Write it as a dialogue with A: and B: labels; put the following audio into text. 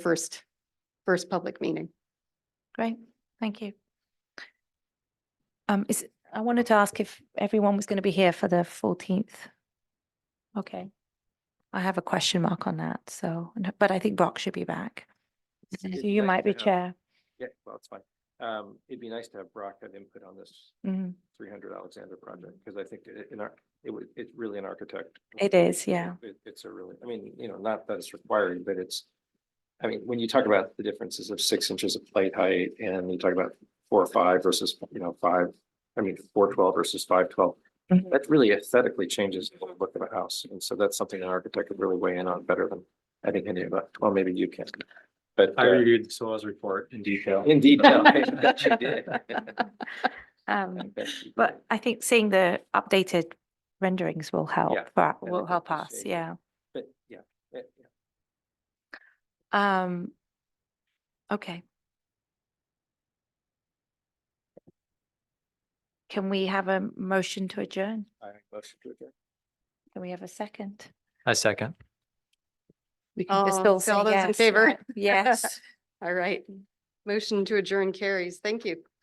A: first, first public meeting.
B: Great, thank you. Um, is, I wanted to ask if everyone was going to be here for the fourteenth. Okay. I have a question mark on that, so, no- but I think Brock should be back. So
C: It'd
B: You
C: nice
B: might
C: to
B: be
C: have-
B: chair.
C: Yeah, well, it's fine. Um, it'd be nice to have Brock have input on this
B: Mhm.
C: three hundred Alexander project, because I think i- in our, it would, it's really an architect.
B: It is, yeah.
C: It, it's a really, I mean, you know, not that it's required, but it's, I mean, when you talk about the differences of six inches of plate height and you talk about four or five versus, you know, five, I mean, four twelve versus five twelve,
B: Mhm.
C: that really aesthetically changes the look of a house. And so that's something an architect could really weigh in on better than, I think, any of us. Well, maybe you can. But.
D: I
C: uh,
D: reviewed the SOAS report in detail.
C: In detail. I bet you did. I
B: Um,
C: bet you
B: but I think seeing the updated renderings will help, for- will
C: think
B: help
C: that's
B: us,
C: safe.
B: yeah.
C: did. But yeah, eh, yeah.
B: Um, okay. Can we have a motion to adjourn?
C: I make motion to adjourn.
B: Can we have a second?
D: I second.
B: We can just
A: Oh,
B: all
A: so
B: say
A: all those in
B: yes,
A: favor?
B: right? Yes.
A: All right. Motion to adjourn carries. Thank you.